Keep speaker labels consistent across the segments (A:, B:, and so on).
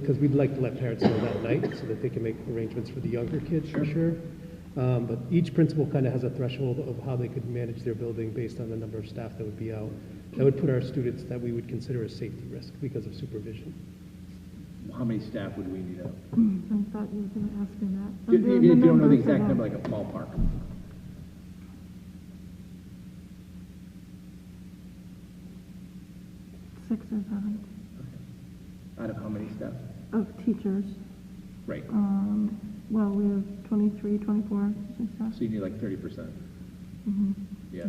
A: Because we'd like to let parents know that night so that they can make arrangements for the younger kids, for sure. Um, But each principal kind of has a threshold of how they could manage their building based on the number of staff that would be out. That would put our students that we would consider a safety risk because of supervision.
B: How many staff would we need out?
C: I thought you were gonna ask me that.
B: Even if you don't know the exact number, like a ballpark.
C: Six or seven
B: Out of how many staff?
C: of teachers.
B: Right,
C: Um, well, we have 23, 24 teaching staff.
B: so you need like thirty percent.
C: Mhm.
B: Yeah.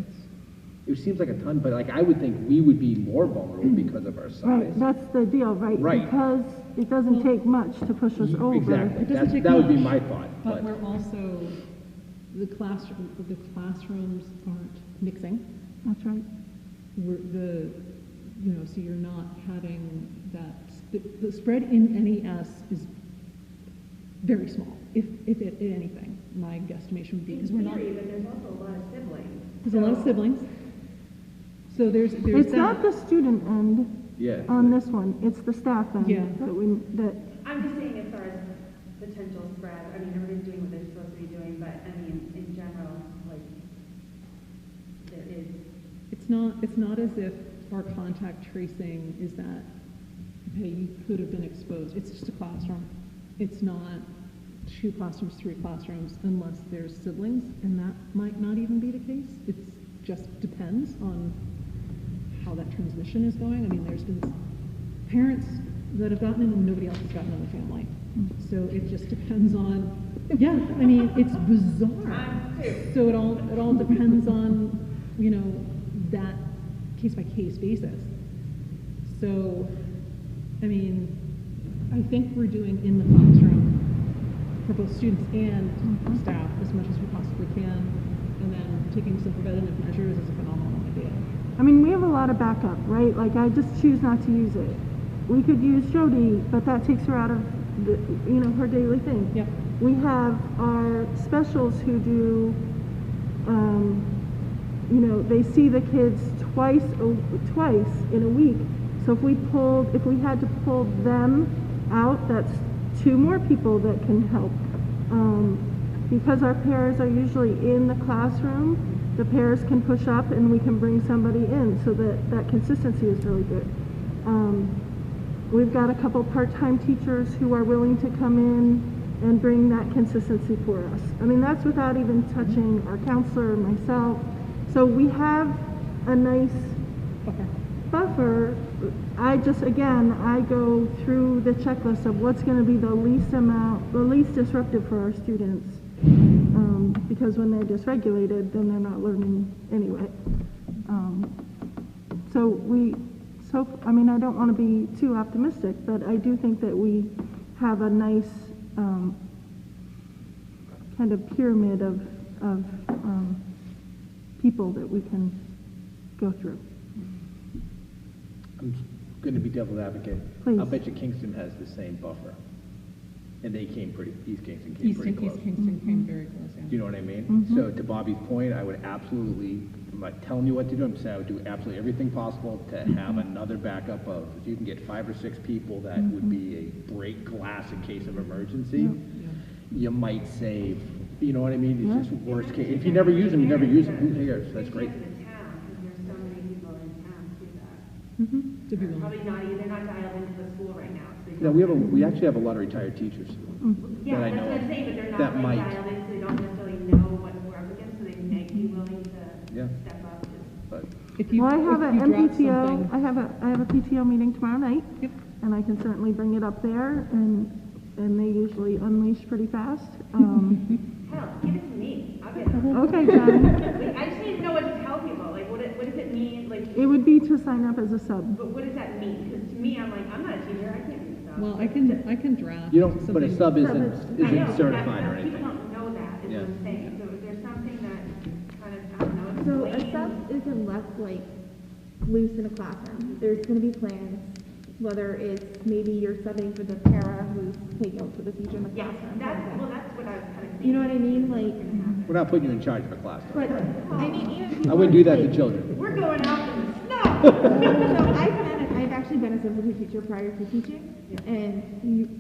B: It seems like a ton, but like I would think we would be more vulnerable because of our size.
C: Right, that's the deal, right?
B: Right.
C: Because it doesn't take much to push us over.
B: Exactly,
D: It doesn't
B: that's,
D: take
B: that would be my
D: much,
B: thought,
D: But
B: but,
D: we're also, the classroom, the classrooms aren't mixing.
C: That's right.
D: We're the, you know, so you're not having that, sp- the spread in NES is very small, if, if it, if anything, my guesstimation would be, because we're not,
E: theory, but there's also a lot of siblings.
D: there's a lot of siblings. So there's, there's
C: It's not
D: that.
C: the student end
B: yeah.
C: on this one, it's the staff end.
D: Yeah.
C: That we, that,
E: I'm just saying as far as potential spread, I mean, everybody's doing what they're supposed to be doing, but I mean, in general, like, there is,
D: It's not, it's not as if our contact tracing is that, hey, you could have been exposed. It's just a classroom. It's not two classrooms, three classrooms, unless there's siblings, and that might not even be the case. It just depends on how that transmission is going. I mean, there's been parents that have gotten it and nobody else has gotten it in the family. So it just depends on, yeah, I mean, it's bizarre. So it all, it all depends on, you know, that case by case basis. So, I mean, I think we're doing in the classroom for both students and staff as much as we possibly can. And then taking some preventative measures is a phenomenal idea.
C: I mean, we have a lot of backup, right? Like, I just choose not to use it. We could use Jody, but that takes her out of, the, you know, her daily thing.
D: Yep.
C: We have our specials who do, um, you know, they see the kids twice, a, twice in a week. So if we pulled, if we had to pull them out, that's two more people that can help. Um, because our pairs are usually in the classroom, the pairs can push up and we can bring somebody in so that that consistency is really good. Um, We've got a couple part-time teachers who are willing to come in and bring that consistency for us. I mean, that's without even touching our counselor, myself. So we have a nice
D: Okay.
C: buffer. I just, again, I go through the checklist of what's gonna be the least amount, the least disruptive for our students. Um, because when they're dysregulated, then they're not learning anyway. Um, so we, so, I mean, I don't want to be too optimistic, but I do think that we have a nice um, kind of pyramid of, of um, people that we can go through.
B: I'm gonna be devil's advocate. I'll
C: Please.
B: bet you Kingston has the same buffer. And they came pretty, East Kingston came pretty
D: Easton,
B: close.
D: East Kingston came very close, yeah.
B: Do you know what I mean? So to Bobby's point, I would absolutely, I'm not telling you what to do, I'm saying I would do absolutely everything possible to have another backup of, if you can get five or six people that would be a break glass in case of emergency, you might save, you know what I mean? It's just worst case. If you never use them, you never use them. Who cares? That's great.
E: because of town, because there's so many people in town who do that.
D: To be
E: They're
D: willing.
E: Probably not, they're not dialed into the school right now, so. they
B: Now,
E: don't-
B: we have a, we actually have a lot of retired teachers.
E: Yeah,
B: that I
E: that's
B: know
E: what I'm
B: of
E: saying, but they're
B: that
E: not like
B: might.
E: dialed in, so they don't necessarily know what we're up against, so they may be willing
B: Yeah.
E: to step up just
B: But
D: If you,
C: Well, I
D: if
C: have an
D: you drop
C: MPTO,
D: something-
C: I have a, I have a PTO meeting tomorrow night.
D: Yep.
C: And I can certainly bring it up there, and, and they usually unleash pretty fast. Um,
E: Hell, give it to me. I'll get it.
C: Okay, John,
E: Like, I just need to know what to tell people. Like, what, it, what does it mean? Like,
C: it would be to sign up as a sub.
E: but what does that mean? Because to me, I'm like, I'm not a teacher. I can't do stuff.
D: Well, I can, I can draft
B: you don't, but a
D: something-
B: sub
C: Sub
B: isn't,
C: is-
E: I know,
B: isn't
E: but
B: certified or
E: that's- People
B: anything.
E: don't know that, is
B: Yeah.
E: what I'm saying. So if there's something that kind of, I don't know, it's
F: So a
E: blatant-
F: sub isn't left like loose in a classroom. There's gonna be plans, whether it's maybe you're subbing for the para who's taking over for the future in the
E: Yeah,
F: classroom.
E: that's, well, that's what I was kind of thinking.
F: You know what I mean? Like,
B: We're not putting you in charge of a class. though.
F: but, I mean, even people.
B: I wouldn't do that to
F: like-
B: children.
E: We're going out in the snow.
F: So I've been, I've actually been a substitute teacher prior to teaching.
C: And you,